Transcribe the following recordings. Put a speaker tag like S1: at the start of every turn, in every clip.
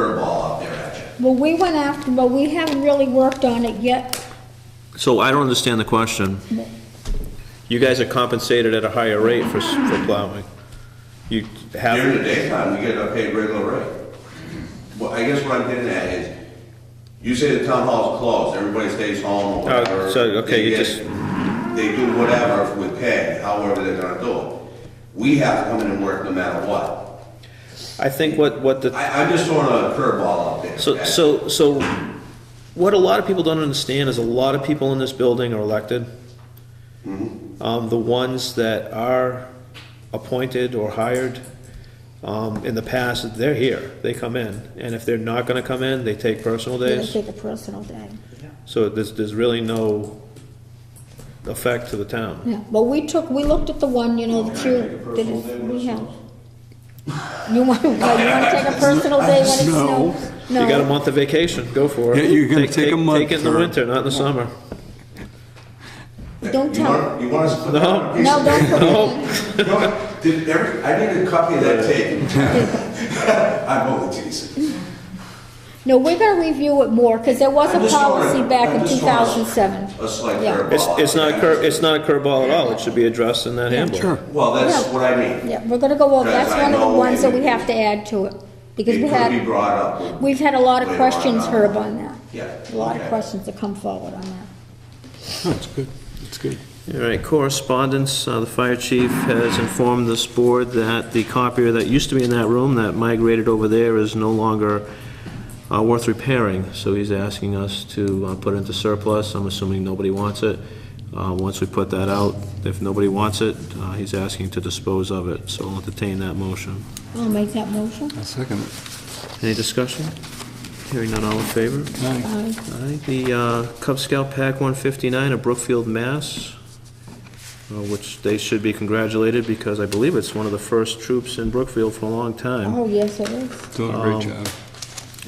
S1: curveball out there at you.
S2: Well, we went after, but we haven't really worked on it yet.
S3: So I don't understand the question.
S4: You guys are compensated at a higher rate for, s- for plowing. You
S1: During the
S4: have,
S1: daytime, we get a paid regular rate. Well, I guess what I'm getting at is, you say the town hall's closed, everybody stays home or
S4: Oh,
S1: whatever.
S4: so, okay,
S1: They
S4: you
S1: get-
S4: just-
S1: They do whatever with pay, however they're gonna do it. We have to come in and work no matter what.
S4: I think what, what the,
S1: I, I'm just throwing a curveball out there.
S4: so,
S1: okay?
S4: so, so what a lot of people don't understand is a lot of people in this building are elected. Um, the ones that are appointed or hired, um, in the past, they're here, they come in. And if they're not gonna come in, they take personal
S2: They
S4: days.
S2: take a personal day.
S4: So there's, there's really no effect to the town.
S2: Yeah, well, we took, we looked at the one, you know, that you, that it- we have. You want, well, you wanna take a personal day when it
S5: No.
S2: snows?
S4: You got a
S2: No,
S4: month of vacation, go for it.
S5: Yeah, you're gonna take a month
S4: Take it in the
S5: for-
S4: winter, not in the summer.
S2: don't
S1: You
S2: tell.
S1: want, you want us to put that on a piece
S2: No,
S1: of
S2: don't
S1: paper?
S2: put it
S1: You know what? Did every, I need a copy of that tape. I'm only teasing.
S2: in. No, we're gonna review it more, cause there was
S1: I'm
S2: a
S1: just throwing-
S2: policy back
S1: I'm
S2: in two
S1: just throwing a-
S2: thousand seven.
S1: A slight
S2: Yeah.
S1: curveball.
S4: It's, it's not a
S1: out
S4: cur,
S1: there.
S4: it's not a curveball at all, it should be addressed in that handbook.
S5: Sure.
S1: Well, that's
S2: Yeah.
S1: what I mean.
S2: Yeah, we're gonna go over,
S1: Because
S2: that's
S1: I
S2: one of the
S1: know
S2: ones that
S1: it-
S2: we have to add to it, because we
S1: It could be
S2: had,
S1: brought up.
S2: we've had a lot of
S1: later on
S2: questions,
S1: on.
S2: Herb, on that.
S1: Yeah,
S2: A lot of
S1: okay.
S2: questions that come forward on that.
S5: That's good, that's good.
S3: All right, correspondence, uh, the fire chief has informed this board that the copier that used to be in that room that migrated over there is no longer uh, worth repairing, so he's asking us to uh, put it into surplus, I'm assuming nobody wants it. Uh, Once we put that out, if nobody wants it, uh, he's asking to dispose of it, so I'll entertain that motion.
S2: I'll make that motion.
S5: I second it.
S3: Any discussion? Hearing none, all in favor?
S5: Aye.
S2: Aye.
S3: Aye, the uh, Cub Scout Pack 159 of Brookfield, Mass, uh, which they should be congratulated because I believe it's one of the first troops in Brookfield for a long time,
S2: Oh, yes, it is.
S5: Doing a
S3: Um,
S5: great job.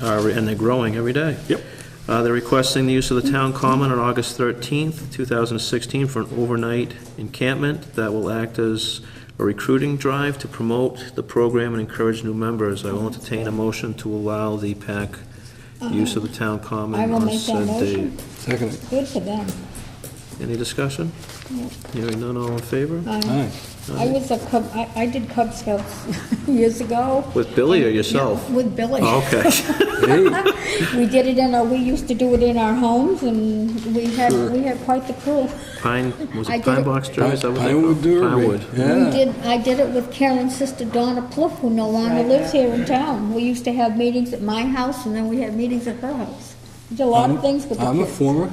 S3: Uh, and they're growing every day.
S5: Yep.
S3: Uh, They're requesting the use of the town common on August 13th, 2016, for an overnight encampment that will act as a recruiting drive to promote the program and encourage new members. I will entertain a motion to allow the pack use of the town common
S2: I will
S3: on
S2: make that
S3: said date.
S2: motion.
S5: Second it.
S2: Good for them.
S3: Any discussion?
S2: No.
S3: Hearing none, all in favor?
S2: I
S5: Aye.
S2: I was a Cub, I, I did Cub Scouts years ago.
S3: With Billy or
S2: Yeah,
S3: yourself?
S2: With Billy.
S3: Oh, Okay.
S5: Hey,
S2: We did it in our, we used to do it in our homes, and we had,
S5: Sure.
S2: we had quite the crew.
S3: Pine, was
S2: I
S3: it
S2: did
S3: Pine
S2: it-
S3: Box Drive? Is that what they
S5: Pinewood
S3: call it?
S5: Derby.
S3: Pinewood.
S2: We
S5: Yeah,
S2: did, I did it with Karen's sister Donna Pluff, who no longer
S6: Right.
S2: lives here in town. We used to have meetings at my house, and then we had meetings at her house. Did a lot of things with the
S5: I'm a
S2: kids. Oh.
S5: former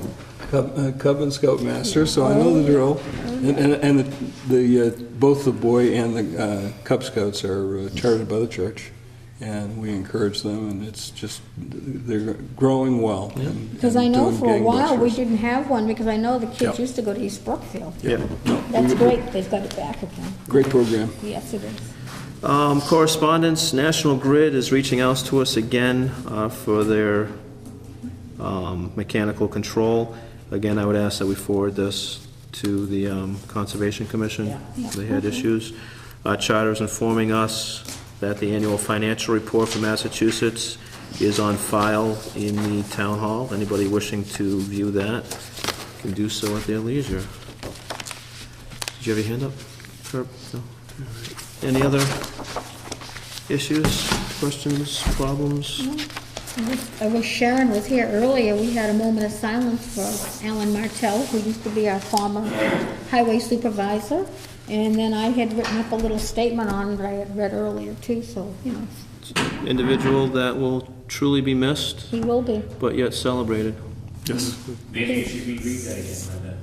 S5: Cub uh, Cub and Scout master, so I know the drill. And, and, and the- the, uh, both the boy and the uh, Cub Scouts are uh, chartered by the church, and we encourage them, and it's just, they're growing well. and-
S2: Because
S5: and
S2: I know
S5: doing
S2: for a while, we
S5: gangbusters.
S2: didn't have one, because I know the kids
S5: Yeah.
S2: used to go to East Brookfield.
S5: Yeah,
S2: That's great, they've got it back again.
S5: great program.
S2: Yes, it is.
S3: Um, correspondence, National Grid is reaching out to us again, uh, for their, um, mechanical control. Again, I would ask that we forward this to the, um, Conservation Commission. They had issues. Uh, Charter's informing us that the annual financial report for Massachusetts is on file in the town hall. Anybody wishing to view that can do so at their leisure. Did you have your hand up, Herb? No? All right. Any other issues, questions, problems?
S2: I wish- I wish Sharon was here earlier, we had a moment of silence for Alan Martell, who used to be our former highway supervisor. And then I had written up a little statement on it, I had read earlier too, so, you know,
S3: individual that will truly be missed,
S2: he will be.
S3: but yet celebrated.
S7: Maybe you should reread that again, Linda.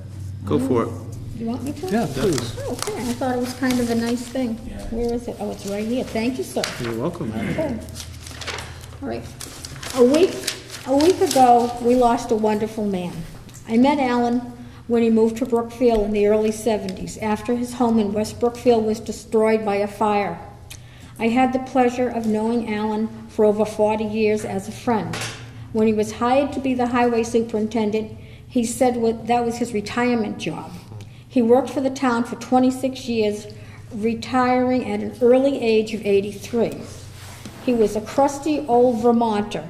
S3: Go for it.
S2: You want me to? Oh,
S5: Yeah, please.
S2: Okay, I thought it was kind of a nice thing. Where is it? Oh, it's right here, thank you, sir.
S3: You're welcome.
S2: Okay. All right. A week, a week ago, we lost a wonderful man. I met Alan when he moved to Brookfield in the early 70s, after his home in West Brookfield was destroyed by a fire. I had the pleasure of knowing Alan for over 40 years as a friend. When he was hired to be the highway superintendent, he said what- that was his retirement job. He worked for the town for 26 years, retiring at an early age of 83. He was a crusty old Vermonter,